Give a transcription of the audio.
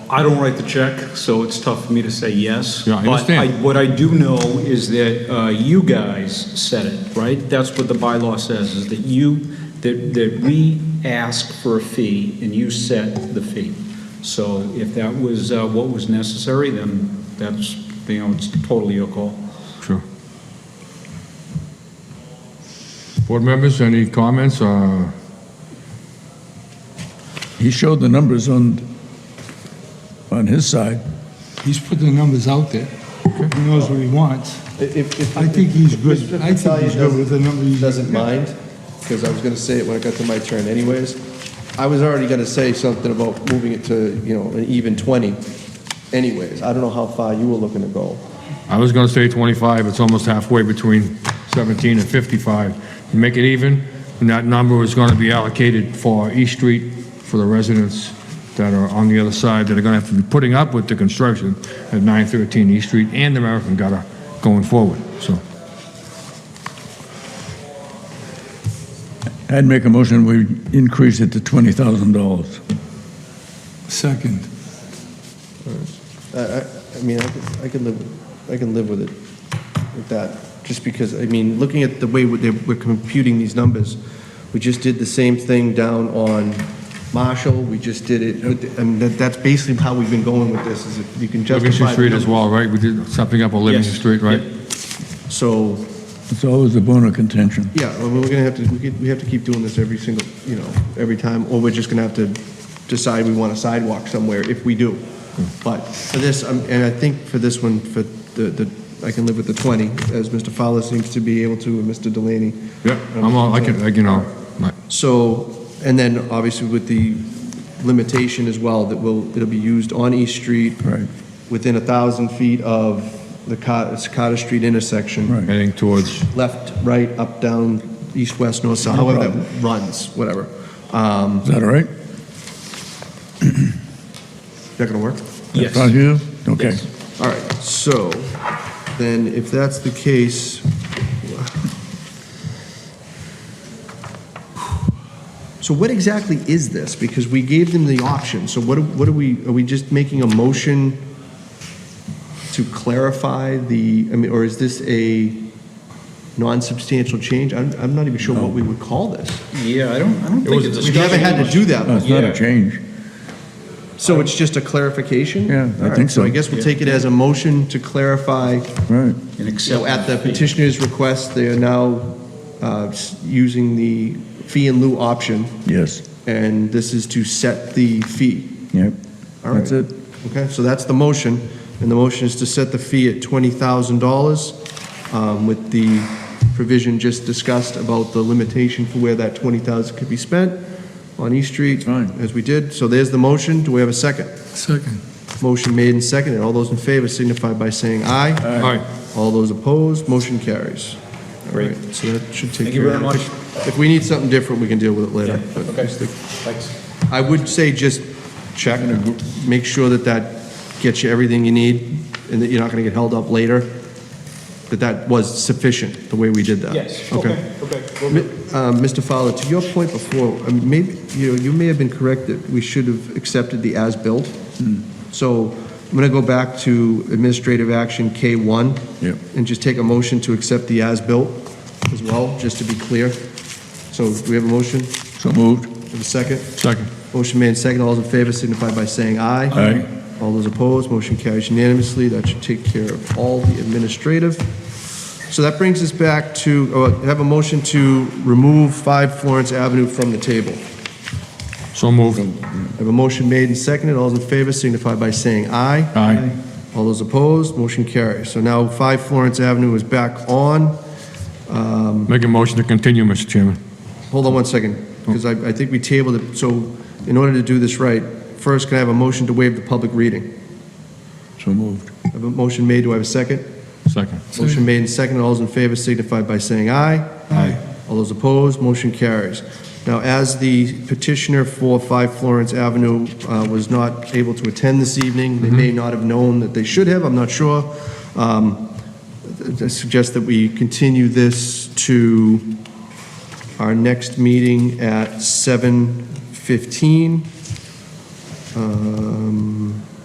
I don't write the check, so it's tough for me to say yes. Yeah, I But understand. I- what I do know is that uh, you guys said it, right? That's what the bylaw says, is that you, that that we ask for a fee and you set the fee. So if that was uh, what was necessary, then that's, you know, it's totally your call. Sure. Board members, any comments? Uh, He showed the numbers on, on his side. He's put the numbers out there. He knows what he wants. If, if. I think he's good. Mr. I think he's good with the number he's- Doesn't mind, because I was gonna say it when it got to my turn anyways. I was already gonna say something about moving it to, you know, an even twenty anyways. I don't know how far you were looking to go. I was gonna say 25, it's almost halfway between 17 and 55. To Make it even, and that number is gonna be allocated for East Street for the residents that are on the other side that are gonna have to be putting up with the construction at 913 East Street and the American Gutter going forward, so. I'd make a motion, we increase it to $20,000. Second. I, I, I mean, I could, I could live, with- I can live with it, with that, just because, I mean, looking at the way we're, they're- we're computing these numbers, we just did the same thing down on Marshall, we just did it, with the- I mean, that, that's basically how we've been going with this, is if you can justify. Livingston the Street as numbers. well, right? We did something up on Livingston Yes. Street, right? So, It's always a bone of contention. yeah, well, we're gonna have to, we could- we have to keep doing this every single, you know, every time, or we're just gonna have to decide we want a sidewalk somewhere, if we do. But for this, um, and I think for this one, for the, the, I can live with the 20, as Mr. Fowler seems to be able to, and Mr. Delaney. Yeah, I'm all, I can, I can, all right. So, and then obviously with the limitation as well, that will, it'll be used on East Street. Right. Within a 1,000 feet of the Cot- Carter Street intersection Right. heading towards, left, right, up, down, east, west, north, south, No however that runs, whatever. Um, Is that all right? is that gonna work? Yes. Sounds good? Okay. Yes. All right, so then if that's the case. So what exactly is this? Because we gave them the option, so what, do- what are we, are we just making a motion to clarify the, I mean, or is this a non-substantial change? I'm, I'm not even sure what we would call this. Yeah, I don't, I don't think it's a We haven't had to do that No, Uh, It's not Yeah. a change. So it's just a clarification? Yeah, I think All right, So so. I guess we'll take it as a motion to clarify, Right. And you know, accept at the fee. petitioner's request, they are now uh, s- using the fee in lieu option, Yes. and this is to set the fee. Yep. All right. That's it. Okay, so that's the motion, and the motion is to set the fee at $20,000 um, with the provision just discussed about the limitation for where that 20,000 could be spent on East Street, Fine. as we did. So there's the motion. Do we have a second? Second. Motion made and seconded. All those in favor signify by saying aye. all right. All those opposed, motion carries. All Great. right, So that should take Thank you care of very it. If we need something different, we can deal with it later. but just the- I would say just check, make sure that that gets you everything you need and that you're not going to get held up later, that that was sufficient, the way we did that. Yes, Okay. okay, okay. Mi- uh, Mr. Fowler, to your point before, I mean, maybe, you know, you may have been correct that we should have accepted the as-built. So I'm going to go back to administrative action K1. Yep. And just take a motion to accept the as-built as well, just to be clear. So do we have a motion? So moved. Have a second? Second. Motion made second. All those in favor signify by saying aye. Aye. All those opposed, motion carries unanimously. That should take care of all the administrative. So that brings us back to, uh, have a motion to remove 5 Florence Avenue from the table. So moved. I Have a motion made and seconded. All those in favor signify by saying aye. Aye. All those opposed, motion carries. So now 5 Florence Avenue is back on. Make a motion to continue, Mr. Chairman. Hold on one second, because I, I think we tabled it. So in order to do this right, first, can I have a motion to waive the public reading? So moved. I Have a motion made. Do I have a second? Second. Motion made and seconded. All those in favor signify by saying aye. Aye. All those opposed, motion carries. Now, as the petitioner for 5 Florence Avenue uh, was not able to attend this evening, they may not have known that they should have, I'm not sure, um, I suggest that we continue this to our next meeting at 7:15. Um,